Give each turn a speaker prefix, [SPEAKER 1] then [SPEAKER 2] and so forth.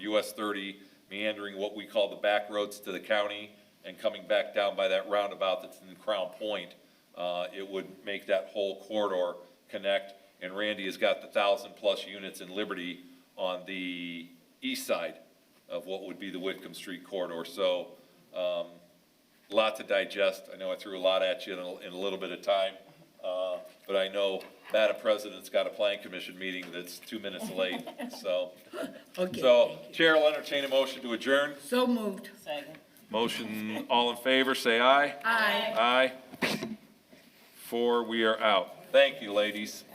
[SPEAKER 1] US thirty, meandering what we call the back roads to the county, and coming back down by that roundabout that's in Crown Point, uh, it would make that whole corridor connect. And Randy has got the thousand-plus units in Liberty on the east side of what would be the Whitcomb Street corridor. So, um, lot to digest. I know I threw a lot at you in a, in a little bit of time. Uh, but I know Madam President's got a plan commission meeting that's two minutes late, so.
[SPEAKER 2] Okay,
[SPEAKER 1] So Chair will entertain a motion to adjourn.
[SPEAKER 2] so moved.
[SPEAKER 3] Second.
[SPEAKER 1] Motion, all in favor, say aye.
[SPEAKER 2] Aye.
[SPEAKER 1] Aye. Four, we are out. Thank you, ladies.